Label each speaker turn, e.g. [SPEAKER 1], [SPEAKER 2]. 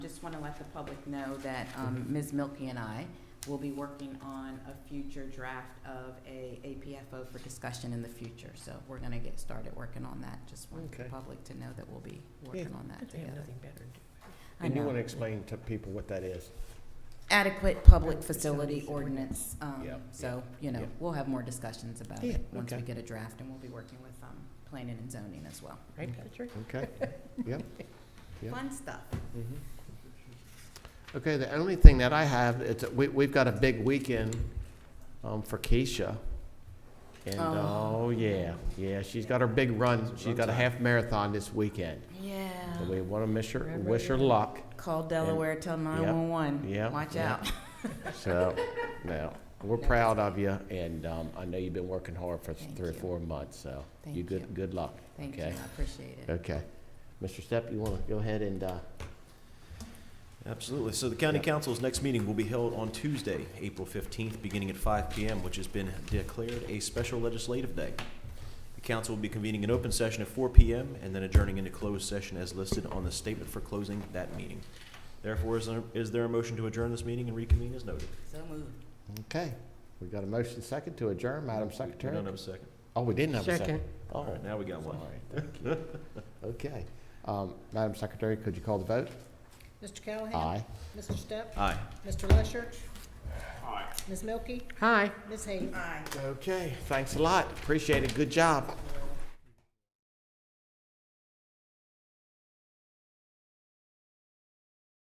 [SPEAKER 1] just want to let the public know that um, Ms. Milky and I will be working on a future draft of a APFO for discussion in the future. So we're going to get started working on that. Just want the
[SPEAKER 2] Okay.
[SPEAKER 1] public to know that we'll be working on that together. I
[SPEAKER 2] And you
[SPEAKER 1] know.
[SPEAKER 2] want to explain to people what that is?
[SPEAKER 1] Adequate public facility
[SPEAKER 3] Facilities
[SPEAKER 1] ordinance. um,
[SPEAKER 2] Yeah,
[SPEAKER 1] So, you know,
[SPEAKER 2] yeah.
[SPEAKER 1] we'll have more discussions about
[SPEAKER 2] Yeah,
[SPEAKER 1] it once we
[SPEAKER 2] okay.
[SPEAKER 1] get a draft, and we'll be working with um, planning and zoning as well.
[SPEAKER 3] Right,
[SPEAKER 2] Okay.
[SPEAKER 3] Patrick?
[SPEAKER 2] Okay. Yeah.
[SPEAKER 1] Fun stuff.
[SPEAKER 2] Mhm. Okay, the only thing that I have, it's, we, we've got a big weekend, um, for Keisha. And,
[SPEAKER 1] Oh.
[SPEAKER 2] oh, yeah, yeah, she's got her big run, she's got a half marathon this weekend.
[SPEAKER 1] Yeah.
[SPEAKER 2] So we want to miss her,
[SPEAKER 3] Remember
[SPEAKER 2] wish her
[SPEAKER 3] that.
[SPEAKER 2] luck,
[SPEAKER 1] Call Delaware, tell 911.
[SPEAKER 2] yeah,
[SPEAKER 1] Watch
[SPEAKER 2] yeah.
[SPEAKER 1] out.
[SPEAKER 2] so, now, we're proud of you, and, um, I know you've been working hard for
[SPEAKER 1] Thank
[SPEAKER 2] three or
[SPEAKER 1] you.
[SPEAKER 2] four months, so.
[SPEAKER 1] Thank you.
[SPEAKER 2] good, good luck.
[SPEAKER 1] Thank you, I
[SPEAKER 2] Okay.
[SPEAKER 1] appreciate it.
[SPEAKER 2] Okay. Mr. Step, you want to go ahead and, uh,
[SPEAKER 4] Absolutely. So the county
[SPEAKER 2] Yeah.
[SPEAKER 4] council's next meeting will be held on Tuesday, April 15th, beginning at 5 PM, which has been declared a special legislative day. The council will be convening an open session at 4 PM and then adjourning into closed session as listed on the statement for closing that meeting. Therefore, is there- is there a motion to adjourn this meeting and reconvene as noted?
[SPEAKER 1] So moved.
[SPEAKER 2] okay, we got a motion second to adjourn, Madam
[SPEAKER 4] We
[SPEAKER 2] Secretary?
[SPEAKER 4] don't have a second.
[SPEAKER 2] Oh, we didn't have a second.
[SPEAKER 3] Second.
[SPEAKER 2] Oh,
[SPEAKER 4] All right, now we got one.
[SPEAKER 2] sorry, thank you. Okay. Um, Madam Secretary, could you call the vote?
[SPEAKER 5] Mr. Callahan?
[SPEAKER 2] Aye.
[SPEAKER 5] Mr. Step?
[SPEAKER 4] Aye.
[SPEAKER 5] Mr. Lusher? Aye. Ms. Milky?
[SPEAKER 3] Hi.
[SPEAKER 5] Ms. Hayes?
[SPEAKER 2] Okay, thanks a lot. Appreciate it. Good job.